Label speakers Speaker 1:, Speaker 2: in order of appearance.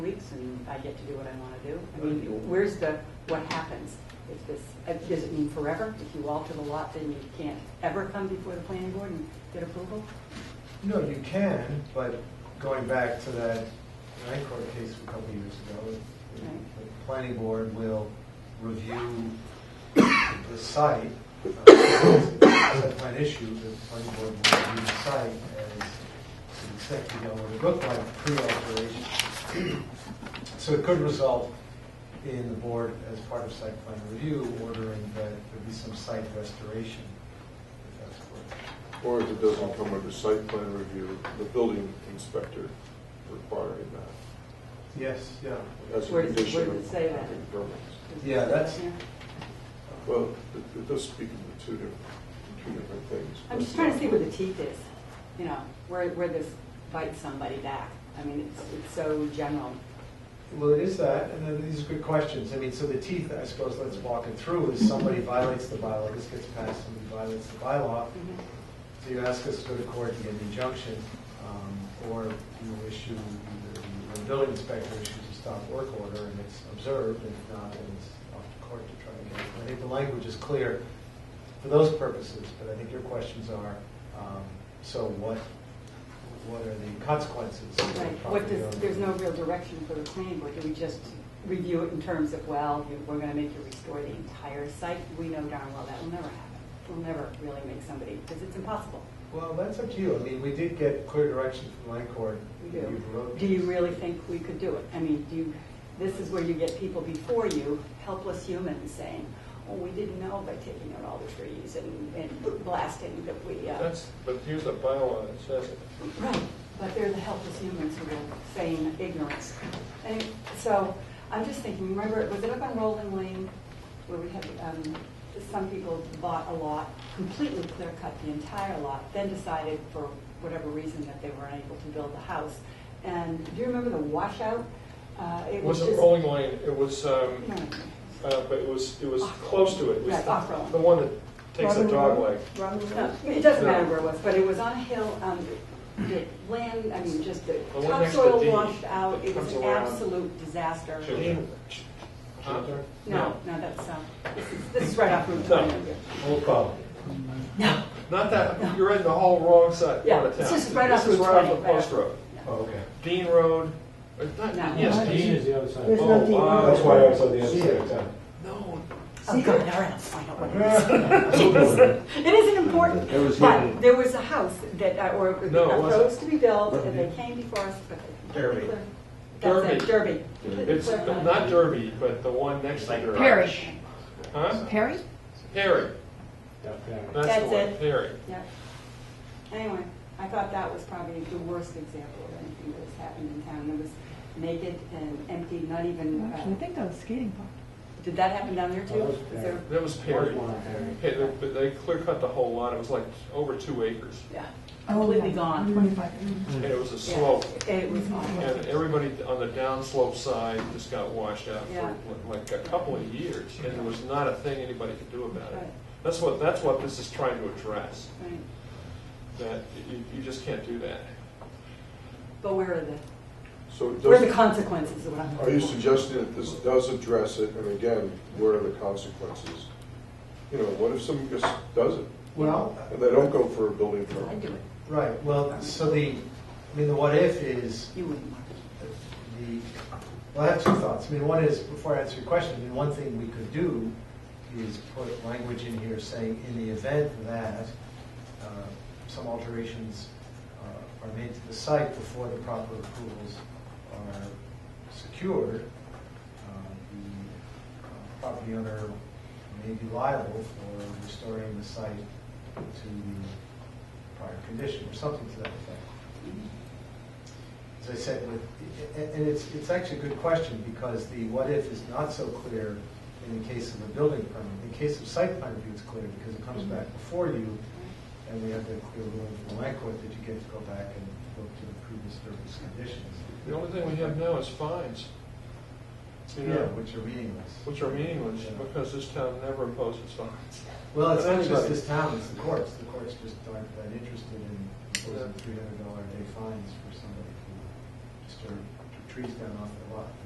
Speaker 1: things and I get to do what I want to do? I
Speaker 2: Well,
Speaker 1: mean,
Speaker 2: you-
Speaker 1: where's the, what happens if this, uh, does it mean forever? If you alter the lot, then you can't ever come before the planning board and get approval?
Speaker 2: No, you can, but going back to that Nycor case a couple of years ago, the-
Speaker 1: Right.
Speaker 2: the planning board will review the site. uh, if it's a Site plan issue, the planning board will review the site as to the extent you know what it looked like pre-alteration. So it could result in the board, as part of site plan review, ordering that there be some site restoration, if that's what.
Speaker 3: Or if it doesn't come under site plan review, the building inspector requiring that
Speaker 2: Yes, yeah.
Speaker 3: as a
Speaker 1: Where does-
Speaker 3: condition
Speaker 1: where does it
Speaker 3: of
Speaker 1: say that?
Speaker 3: the permits.
Speaker 1: Is
Speaker 2: Yeah,
Speaker 1: that
Speaker 2: that's-
Speaker 1: in here?
Speaker 3: Well, it- it does speak to two different, two different things.
Speaker 1: I'm just trying to see where the teeth is, you know, where, where this bites somebody back. I mean, it's, it's so general.
Speaker 2: Well, it is that, and then these are good questions. I mean, so the teeth, I suppose, let's walk it through, is somebody violates the bylaw, this gets passed, somebody violates the bylaw. So you ask us to go to court to get an injunction, um, or you issue, either the building inspector issues a stop work order, and it's observed, and if not, then it's off to court to try to get it. I think the language is clear for those purposes, but I think your questions are, um, so what, what are the consequences? of the
Speaker 1: Right, what
Speaker 2: property
Speaker 1: does,
Speaker 2: owner?
Speaker 1: there's no real direction for the planning board, do we just review it in terms of, well, you- we're gonna make you restore the entire site? We know darn well that will never happen, we'll never really make somebody, because it's impossible.
Speaker 2: Well, that's up to you. I mean, we did get clear direction from Lancourt.
Speaker 1: We
Speaker 2: that
Speaker 1: do.
Speaker 2: you wrote
Speaker 1: Do you
Speaker 2: this.
Speaker 1: really think we could do it? I mean, do you, this is where you get people before you, helpless humans, saying, oh, we didn't know by taking out all the trees and, and blasting that we, uh.
Speaker 4: That's, but here's a bylaw that says it.
Speaker 1: Right, but they're the helpless humans who are saying ignorance. And so I'm just thinking, remember, was it up on Rolling Lane where we had, um, some people bought a lot, completely clear cut the entire lot, then decided for whatever reason that they were unable to build the house. And do you remember the washout? Uh,
Speaker 4: It
Speaker 1: It was
Speaker 4: wasn't
Speaker 1: just.
Speaker 4: Rolling Lane, it was, um,
Speaker 1: No.
Speaker 4: uh, but it was, it was close to it. It was
Speaker 1: Right, off Rolling.
Speaker 4: The one that takes the dog leg.
Speaker 1: No, It doesn't matter where it was, but it was on a hill, um, the land, I mean, just the
Speaker 4: The one next to
Speaker 1: topsoil
Speaker 4: D
Speaker 1: washed out,
Speaker 4: that
Speaker 1: it was
Speaker 4: comes
Speaker 1: an
Speaker 4: around.
Speaker 1: absolute disaster.
Speaker 4: Children. Huh?
Speaker 1: No, no, that's, um, this is, this is right off Route
Speaker 4: No.
Speaker 1: 20.
Speaker 2: Old problem.
Speaker 1: No.
Speaker 4: Not that, you're in the whole wrong side,
Speaker 1: Yeah,
Speaker 4: part of
Speaker 1: it's
Speaker 4: town.
Speaker 1: just right off
Speaker 4: This is
Speaker 1: Route
Speaker 4: right
Speaker 1: 20,
Speaker 4: off the post
Speaker 1: right
Speaker 4: road.
Speaker 2: Oh, okay.
Speaker 4: Dean Road, or not,
Speaker 1: No.
Speaker 4: yes,
Speaker 5: Dean
Speaker 4: Dean.
Speaker 5: is the other side.
Speaker 6: There's
Speaker 4: Oh,
Speaker 6: no Dean.
Speaker 4: wow.
Speaker 6: That's
Speaker 5: why I
Speaker 6: was
Speaker 5: on the other side
Speaker 4: No,
Speaker 1: Oh, God, all right, I'll find out what it is.
Speaker 2: Yeah.
Speaker 1: It isn't important,
Speaker 6: It was
Speaker 1: but
Speaker 6: hidden.
Speaker 1: there was a house that, uh, or a
Speaker 4: No, it wasn't.
Speaker 1: roads to be built, and they came before us, but. they-
Speaker 2: Derby.
Speaker 1: That's it, Derby.
Speaker 4: it's not Derby, but the one next to Derby.
Speaker 7: Perry.
Speaker 4: Huh?
Speaker 7: Perry?
Speaker 4: Perry, that's the
Speaker 1: That's
Speaker 4: one,
Speaker 1: it.
Speaker 4: Perry.
Speaker 1: Yeah. Anyway, I thought that was probably the worst example of anything that has happened in town. It was naked and empty, not even,
Speaker 6: Actually, I
Speaker 1: uh,
Speaker 6: think that was skating park.
Speaker 1: did that happen down there too?
Speaker 5: That was
Speaker 1: Is
Speaker 5: bad.
Speaker 1: there-
Speaker 4: That was Perry.
Speaker 5: Perry.
Speaker 4: Hey, they- But they clear cut the whole lot, it was like over two acres,
Speaker 1: Yeah,
Speaker 6: Oh,
Speaker 1: completely
Speaker 6: yeah.
Speaker 1: gone.
Speaker 6: Twenty-five.
Speaker 1: Mm.
Speaker 4: and it was a
Speaker 1: Yeah.
Speaker 4: slope.
Speaker 1: It was awful.
Speaker 4: And everybody on the downslope side just got washed out
Speaker 1: Yeah.
Speaker 4: for like a couple of years, and there was not a thing anybody could do about it.
Speaker 1: Right.
Speaker 4: That's what, that's what this is trying to address,
Speaker 1: Right.
Speaker 4: that you, you just can't do that.
Speaker 1: But where are the,
Speaker 3: So it
Speaker 1: where are the
Speaker 3: does,
Speaker 1: consequences of what I'm
Speaker 3: are you suggesting that this does address it, and again, where are the consequences? You know, what if someone just does it,
Speaker 2: Well,
Speaker 3: and they don't go for a building
Speaker 1: I
Speaker 3: permit?
Speaker 1: do it.
Speaker 2: right, well, so the, I mean, the what if is
Speaker 1: You wouldn't, Mark.
Speaker 2: the, well, I have two thoughts. I mean, one is, before I answer your question, I mean, one thing we could do is put language in here saying, in the event that uh, some alterations uh, are made to the site before the proper approvals are secured, uh, the uh, property owner may be liable for restoring the site to the prior condition, or something to that effect as I said, with, and- and it's, it's actually a good question, because the what if is not so clear in the case of a building permit. In the case of site plan review, it's clear, because it comes back before you, and we have the clear ruling from the land court that you get to go back and look to the previous disturbance conditions.
Speaker 4: The only thing we have now is fines, you
Speaker 2: Yeah,
Speaker 4: know,
Speaker 2: which are meaningless.
Speaker 4: which are meaningless, because this town never imposes fines.
Speaker 2: Well, it's not just
Speaker 4: Anybody.
Speaker 2: this town, it's the courts. The courts just aren't that interested in imposing three hundred dollar a day fines for somebody who disturbed trees down off their lot.